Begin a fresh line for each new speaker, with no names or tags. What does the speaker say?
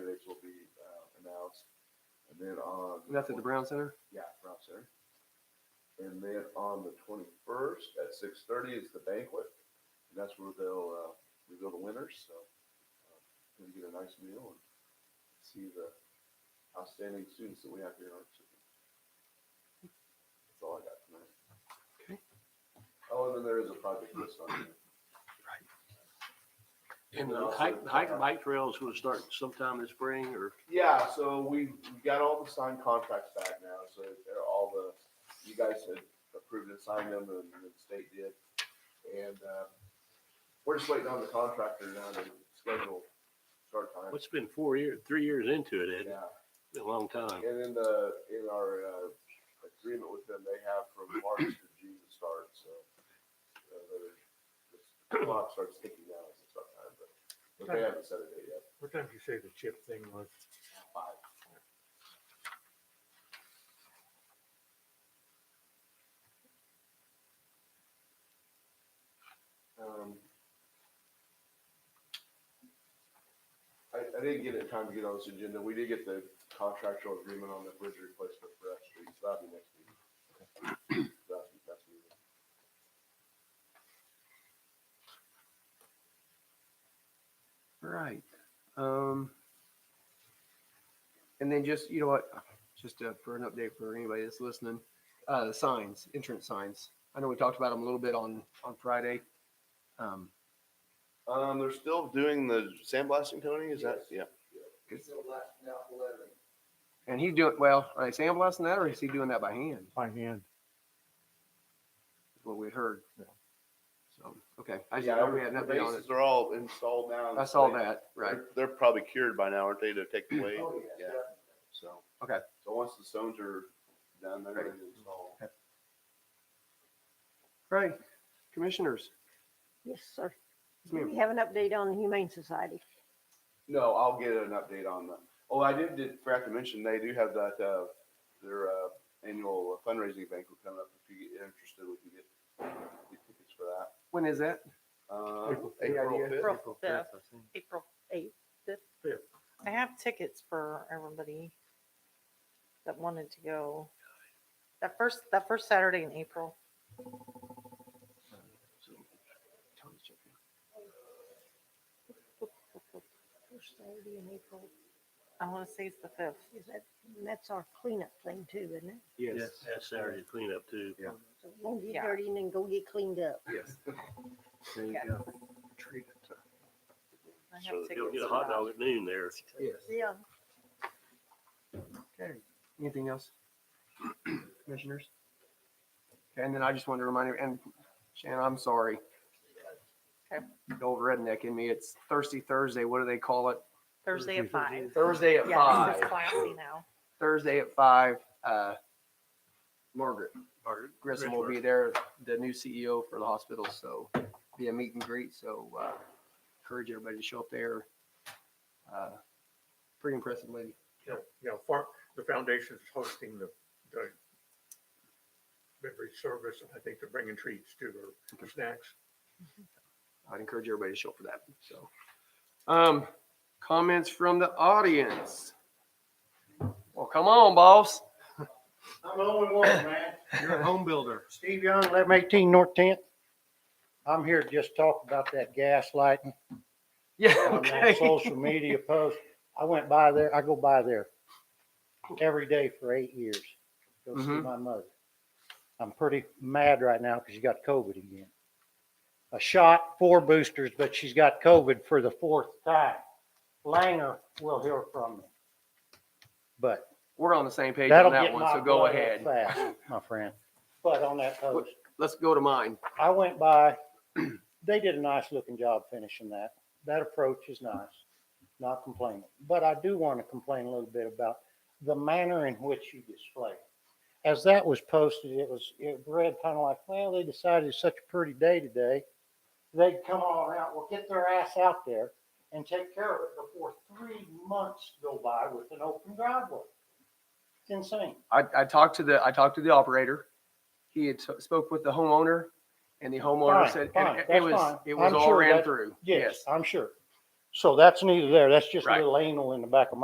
uh,
That's at the Brown Center?
Yeah, Brown Center. And then on the twenty-first at six thirty is the banquet, and that's where they'll, uh, reveal the winners, so. uh, Gonna get a nice meal and see the outstanding students that we have here in our city. That's all I got tonight.
Okay.
Oh, and then there is a project list on here.
And the hike, the hike
uh,
and bike trails will start sometime this spring or,
Yeah, so we, we got all the signed contracts back now, so they're all the, you guys had approved and signed them and the state did. And, uh, we're just waiting on the contractor now to schedule start time.
it's been four years, three years into it, Ed,
Yeah,
a long time.
and in the, in our, uh, agreement with them, they have from March to June to start, so. uh, they're just- The clock starts ticking now as it's start time, but, but they haven't set a date yet.
What time did you say the chip thing was?
Five. Um, I, I didn't get it in time to get on this agenda. We did get the contractual agreement on the bridge replacement for F Street, so that'll be next meeting. That'll be next meeting.
All right. Um, and then just, you know what, just uh, for an update for anybody that's listening, uh, signs, entrance signs. I know we talked about them a little bit on, on Friday. Um,
Um, they're still doing the sandblasting, Tony? Is that,
Yes.
yeah?
It's still lasting out the lettering.
and he doing, well, are they sandblasting that or is he doing that by hand?
By hand.
Is what we had heard. So, okay. I just,
Yeah,
we had an
the
update on it.
bases are all installed now.
I saw that, right.
They're- They're probably cured by now, aren't they, to take away?
Oh, yeah,
Yeah.
definitely.
So.
Okay.
So once the stones are done, they're ready to install.
Right. Commissioners,
Yes, sir.
Yes,
Do
ma'am.
we have an update on the Humane Society?
No, I'll get an update on that. Oh, I did, did forgot to mention, they do have that, uh, their, uh, annual fundraising banquet coming up. If you get interested, we can get get tickets for that.
when is that?
Um,
Any
April
idea?
fifth.
April fifth, April eighth.
Fifth.
I have tickets for everybody that wanted to go. That first, that first Saturday in April.
First Saturday in April.
I want to say it's the fifth.
Is that, and that's our cleanup thing too, isn't it?
Yes. That's Saturday cleanup too. Yeah.
So don't get
Yeah.
dirty and then go get cleaned up.
Yes. There you
Yeah.
go.
I have
So
tickets.
You'll get a
for
hot
that.
dog at noon there.
Yes.
Yeah.
Okay. Anything else? Commissioners? Okay, and then I just wanted to remind you, and Shannon, I'm sorry.
Okay.
The old redneck in me, it's thirsty Thursday. What do they call it?
Thursday at five.
Thursday at
Yes, it's
five.
classy now.
Thursday at five, uh, Margaret
Margaret
Grissom will be there, the new CEO for the hospital, so be a meet and greet, so, uh, encourage everybody to show up there. Uh, Pretty impressive lady.
You know, you know, far, the foundation's hosting the, the beverage service, and I think they're bringing treats too, or snacks.
I'd encourage everybody to show up for that, so. Um, comments from the audience? Well, come on, boss.
I'm the only one, man.
You're a home builder.
Steve Young, eleven eighteen North Tenth. I'm here to just talk about that gaslighting
Yeah,
on that
okay.
social media post. I went by there, I go by there every day for eight years. Go see
Mhm.
my mother. I'm pretty mad right now because she got COVID again. A shot, four boosters, but she's got COVID for the fourth time. Langer will hear from me. But
We're on the same page
That'll
on
get
that one,
my
so go
blood up
ahead.
Fast, my friend. But on that post,
Let's go to mine.
I went by, they did a nice looking job finishing that. That approach is nice, not complaining. But I do want to complain a little bit about the manner in which you display. it. As that was posted, it was, it read kind of like, well, they decided it's such a pretty day today. They'd come all around, well, get their ass out there and take care of it before three months go by with an open driveway. It's insane.
I, I talked to the, I talked to the operator. He had t- spoke with the homeowner and the homeowner
Fine,
said,
fine,
and it- it
that's
was,
fine.
it was
I'm
all
sure
ran
that-
through.
Yes, I'm sure. So that's neither there. That's just a
Right.
little anal in the back of my.